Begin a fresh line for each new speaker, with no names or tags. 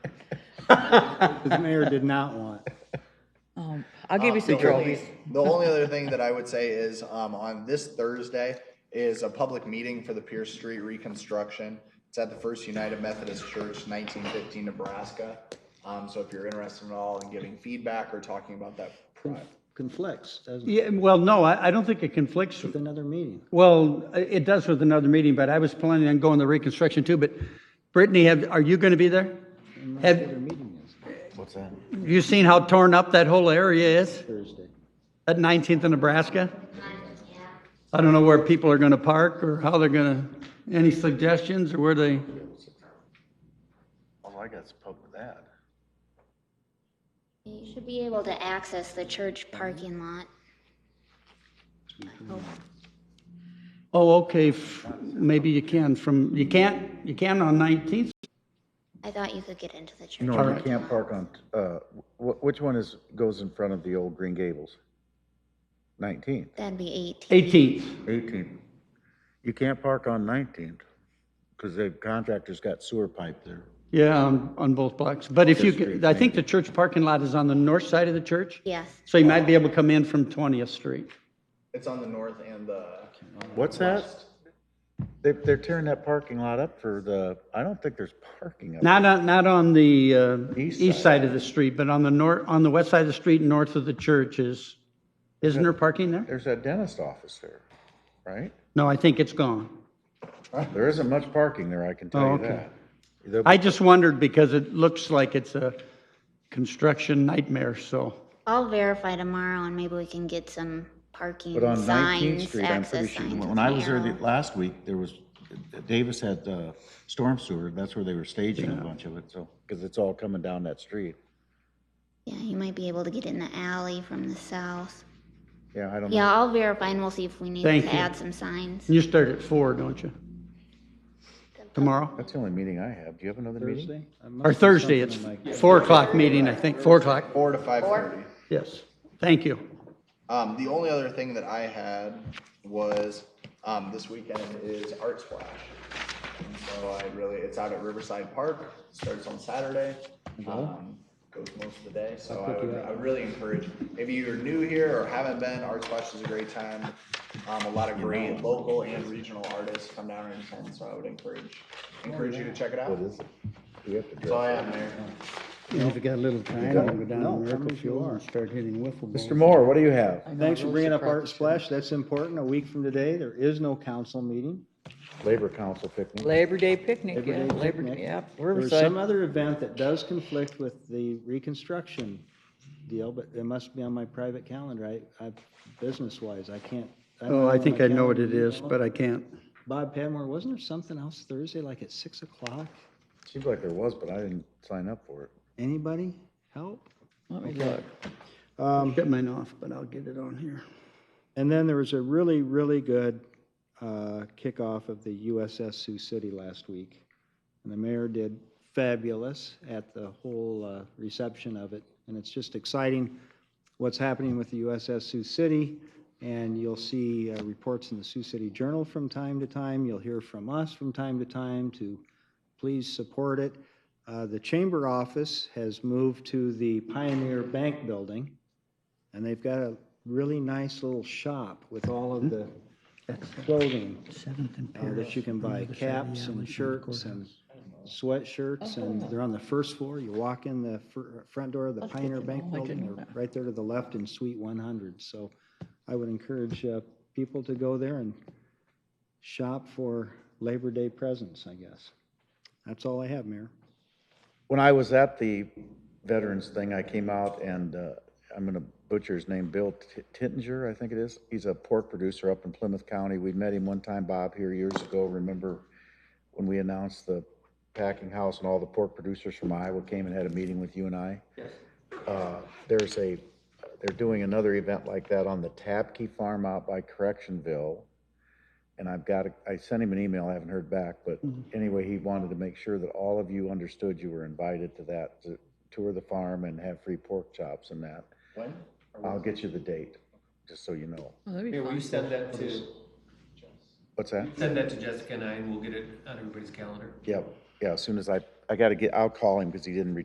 The mayor did not want.
Um, I'll give you
Uh,
some
the only-
trophies.
The only other thing that I would say is, um, on this Thursday is a public meeting for the Pierce Street reconstruction. It's at the First United Methodist Church, nineteen fifteen, Nebraska. Um, so if you're interested at all in giving feedback or talking about that, pro-
Conflicts, doesn't it,
Yeah, well, no, I, I don't think it conflicts.
with another meeting?
Well, i- it does with another meeting, but I was planning on going to reconstruction too, but Brittany, have, are you going to be there?
I'm not sure
Have
their meeting is
What's that?
you seen how torn up that whole area is
Thursday.
at 19th and Nebraska? I don't know where people are going to park or how they're going to, any suggestions or where they,
All I got is public that.
You should be able to access the church parking lot.
oh, okay, f- maybe you can from, you can't, you can on 19th?
I thought you could get into the church.
No, you
parking
can't
lot.
park on, uh, wh- which one is, goes in front of the old Green Gables? Nineteenth,
That'd be 18.
18th.
eighteenth. You can't park on nineteenth, because the contractor's got sewer pipe there.
Yeah, on, on both blocks. But if you,
District,
could- I think the church parking lot is on the north side of the church,
Yes,
so you might be able to come in from 20th Street.
it's on the north and the.
What's that? They, they're tearing that parking lot up for the, I don't think there's parking up.
Not on, not on the uh,
East
east side of the street, but on the north, on the west side of the street, north of the church is, isn't there parking there?
There's that dentist office there, right?
No, I think it's gone.
There isn't much parking there, I can
Oh,
tell you
okay.
that. There'll be-
I just wondered because it looks like it's a construction nightmare, so.
I'll verify tomorrow and maybe we can get some parking
But on 19th
signs,
Street, I'm pretty
access
sure,
signs.
when I was there the-
arrow.
last week, there was, Davis had uh, storm sewer, that's where they were staging a bunch of it, so, because it's all coming down that street.
Yeah, you might be able to get in the alley from the south.
Yeah, I don't know.
Yeah, I'll verify and we'll see if we need
Thank
to
you.
add some signs.
You start at four, don't you? Tomorrow?
That's the only meeting I have. Do you have another meeting?
Thursday? I must
Or
have
Thursday, it's
something in my-
four o'clock meeting, I think, four o'clock.
Four to five thirty.
Yes, thank you.
Um, the only other thing that I had was, um, this weekend is Art Splash. And so I really, it's out at Riverside Park, starts on Saturday, um, goes most of the day. So I would, I would really encourage, if you're new here or haven't been, Art Splash is a great time. Um, a lot of great local and regional artists come down and attend, so I would encourage, encourage you to check it out.
What is it? We have to
That's all
dress.
I have, Mayor.
And if you got a little time,
got-
I'm gonna go down
No,
to
come
Miracle
as you
Fuel
are.
and start hitting wiffle balls.
Mr. Moore, what do you have?
Thanks for bringing up Art Splash, that's important. A week from today, there is no council meeting.
Labor Council picnic.
Labor Day picnic,
Labor
yeah,
Day
Labor,
picnic.
Day, yeah,
There was some
Riverside.
other event that does conflict with the reconstruction deal, but it must be on my private calendar, I, I, business-wise, I can't. don't
Oh, I
have
think
my
I know what it
calendar.
is, but I can't.
Bob Padmore, wasn't there something else Thursday, like at 6 o'clock?
Seems like there was, but I didn't sign up for it.
Anybody help?
Let me look.
Um,
Get mine off, but I'll get it on here.
And then there was a really, really good uh, kickoff of the USS Sioux City last week. And the mayor did fabulous at the whole uh, reception of it. And it's just exciting what's happening with the USS Sioux City. And you'll see uh, reports in the Sioux City Journal from time to time. You'll hear from us from time to time to please support it. Uh, The chamber office has moved to the Pioneer Bank Building. And they've got a really nice little shop with all of the clothing
Seventh and
uh, that you can buy, caps and shirts and sweatshirts. And they're on the first floor. You walk in the fir- front door of the
That's good
Pioneer
to
Bank
know. I didn't
Building,
know
they're
that.
right there to the left in Suite 100. So I would encourage uh, people to go there and shop for Labor Day presents, I guess. That's all I have, Mayor.
When I was at the veterans thing, I came out and, uh, I'm gonna butcher his name, Bill Ti- Tittinger, I think it is. He's a pork producer up in Plymouth County. We met him one time, Bob, here years ago. Remember when we announced the packing house and all the pork producers from Iowa came and had a meeting with you and I? Uh, There's a, they're doing another event like that on the Tabke Farm out by Correctionville. And I've got, a- I sent him an email, I haven't heard back, but anyway, he wanted to make sure that all of you understood you were invited to that, to tour the farm and have free pork chops and that.
When?
I'll get you the date, just so you know.
Oh, that'd be
Here, will you
fun.
send that to,
What's that?
send that to Jessica and I, and we'll get it on everybody's calendar?
Yeah, yeah, as soon as I, I gotta get, I'll call him because he didn't return